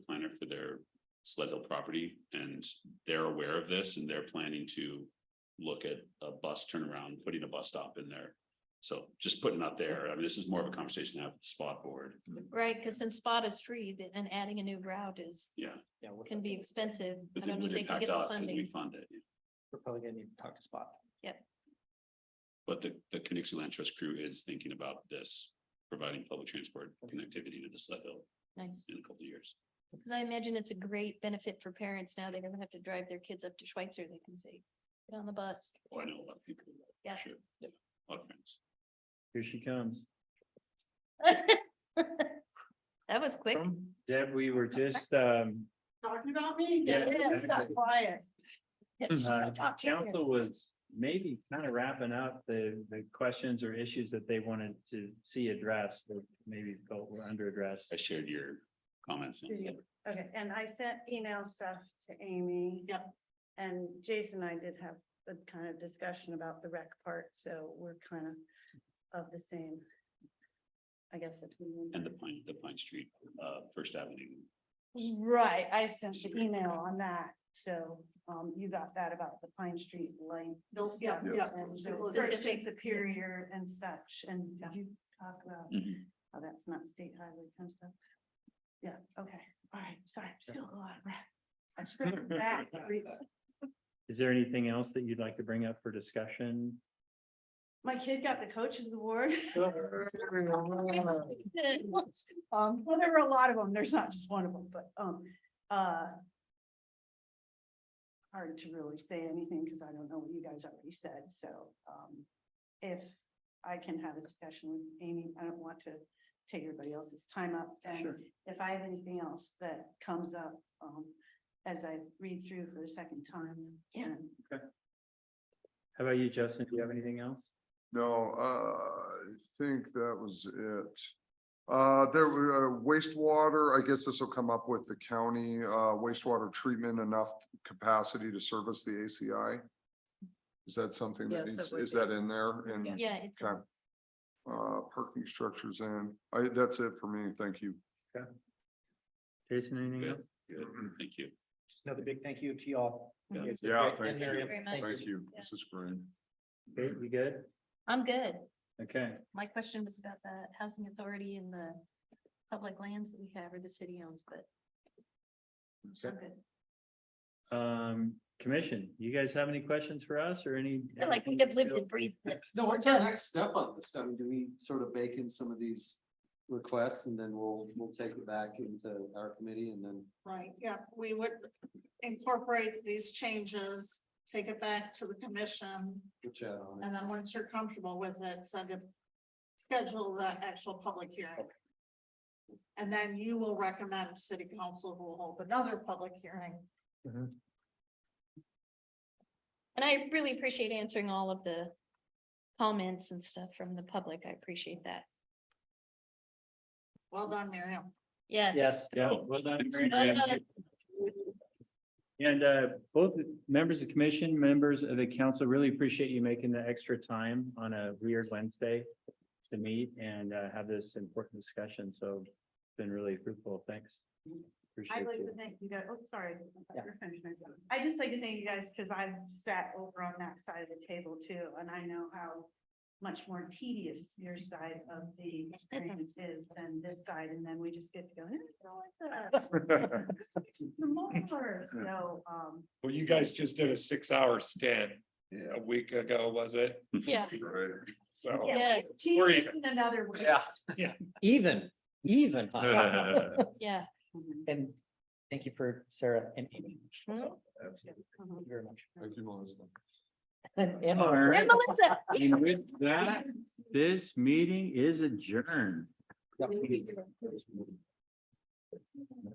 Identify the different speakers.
Speaker 1: grant for their sled hill property and they're aware of this and they're planning to look at a bus turnaround, putting a bus stop in there. So just putting out there, I mean, this is more of a conversation to have with the spot board.
Speaker 2: Right, because since spot is free, th- and adding a new route is,
Speaker 1: Yeah,
Speaker 3: Yeah, we're
Speaker 2: can be expensive.
Speaker 1: but
Speaker 2: I
Speaker 1: it
Speaker 2: don't know
Speaker 1: would
Speaker 2: if they can
Speaker 1: impact us
Speaker 2: get the
Speaker 1: because we
Speaker 2: funding.
Speaker 1: fund it.
Speaker 3: we're probably gonna need to talk to Spot.
Speaker 1: But the, the Kinnixie Land Trust crew is thinking about this, providing public transport connectivity to the sled hill in a couple of years.
Speaker 2: Because I imagine it's a great benefit for parents now. They don't have to drive their kids up to Schweitzer. They can say, get on the bus.
Speaker 1: Oh, I know a lot of people. who love it,
Speaker 2: Yeah.
Speaker 1: Sure.
Speaker 3: Yeah.
Speaker 1: A lot of friends.
Speaker 4: Here she comes.
Speaker 2: That was quick.
Speaker 4: Deb, we were just, um,
Speaker 2: Talking about me?
Speaker 4: Yeah, Yeah, it's not exactly.
Speaker 2: quiet.
Speaker 1: Mm-hmm.
Speaker 4: uh, council was maybe kind of wrapping up the, the questions or issues that they wanted to see addressed, or maybe felt were under addressed.
Speaker 1: I shared your comments.
Speaker 5: Did you? Okay, and I sent email stuff to Amy.
Speaker 2: Yep.
Speaker 5: And Jason and I did have the kind of discussion about the rec part, so we're kind of of the same. I guess. if we want.
Speaker 1: And the Pine, the Pine Street, uh, First Avenue.
Speaker 5: Right, I sent the email on that, so um you got that about the Pine Street lane.
Speaker 2: Those- yeah,
Speaker 5: stuff
Speaker 2: yeah.
Speaker 5: and
Speaker 2: It
Speaker 5: so
Speaker 2: was-
Speaker 5: Christian Superior and such, and did you talk about
Speaker 1: Mhm.
Speaker 5: how that's not state highway kind of stuff? Yeah, okay, all right, sorry, I'm still a lot of breath. I screwed back.
Speaker 4: Is there anything else that you'd like to bring up for discussion?
Speaker 5: My kid got the coaches award. Um, well, there were a lot of them. There's not just one of them, but, um, uh. Hard to really say anything because I don't know what you guys already said, so, um, if I can have a discussion with Amy, I don't want to take everybody else's time up. And
Speaker 4: Sure.
Speaker 5: if I have anything else that comes up, um, as I read through for the second time.
Speaker 2: Yeah.
Speaker 5: then
Speaker 4: How about you, Justin? Do you have anything else?
Speaker 6: No, uh, I think that was it. Uh, there were uh, wastewater, I guess this will come up with the county, uh, wastewater treatment enough capacity to service the ACI? Is that something
Speaker 7: Yes,
Speaker 6: that
Speaker 7: that
Speaker 6: needs,
Speaker 7: would
Speaker 6: is
Speaker 7: be.
Speaker 6: that in there? And,
Speaker 2: Yeah, it's,
Speaker 6: okay. Uh, parking structures in, I, that's it for me, thank you.
Speaker 4: Jason, anything else?
Speaker 1: Good, Thank you.
Speaker 3: Another big thank you to y'all.
Speaker 1: Yeah.
Speaker 3: It's
Speaker 6: Yeah,
Speaker 3: great-
Speaker 6: thank
Speaker 3: and their
Speaker 6: you.
Speaker 3: input.
Speaker 2: Thank
Speaker 6: Thank you,
Speaker 2: Yeah.
Speaker 6: this is great.
Speaker 4: Okay, we good?
Speaker 2: I'm good.
Speaker 4: Okay,
Speaker 2: My question was about the housing authority and the public lands that we have or the city owns, but I'm good.
Speaker 4: um, commission, you guys have any questions for us or any?
Speaker 2: I feel like we have lived and breathed this.
Speaker 3: No, what's our next step on this? I mean, do we sort of bake in some of these requests and then we'll, we'll take it back into our committee and then
Speaker 8: Right, yeah, we would incorporate these changes, take it back to the commission,
Speaker 3: we'll chat on it.
Speaker 8: and then once you're comfortable with it, send it. Schedule the actual public hearing. And then you will recommend city council who will hold another public hearing.
Speaker 2: And I really appreciate answering all of the comments and stuff from the public. I appreciate that.
Speaker 8: Well done, Miriam.
Speaker 2: Yes.
Speaker 4: Yeah, well done. Mary Ann. And uh, both members of commission, members of the council, really appreciate you making the extra time on a weird Wednesday to meet and uh, have this important discussion. So it's been really fruitful. Thanks. Appreciate
Speaker 5: I'd like to
Speaker 4: you.
Speaker 5: thank you guys, oh, sorry. I
Speaker 3: Yeah.
Speaker 5: thought you were finished. I'd just like to thank you guys because I've sat over on that side of the table too, and I know how much more tedious your side of the experience is than this side, and then we just get to go, "Eh, I don't like that. Some more, so, um,
Speaker 9: Well, you guys just did a six hour stint
Speaker 6: Yeah.
Speaker 9: a week ago, was it?
Speaker 2: Yeah.
Speaker 6: Right.
Speaker 9: So.
Speaker 2: Yeah.
Speaker 5: yeah, tedious in another way.
Speaker 3: even, even.
Speaker 2: Yeah.
Speaker 5: Mhm.
Speaker 3: And thank you for Sarah and Amy.
Speaker 2: Mhm.
Speaker 5: Mm-hmm.
Speaker 3: Thank you very much.
Speaker 6: Thank you, Melissa.
Speaker 3: And
Speaker 4: All
Speaker 3: Emma.
Speaker 4: right.
Speaker 2: And Melissa.
Speaker 4: And with that, this meeting is adjourned.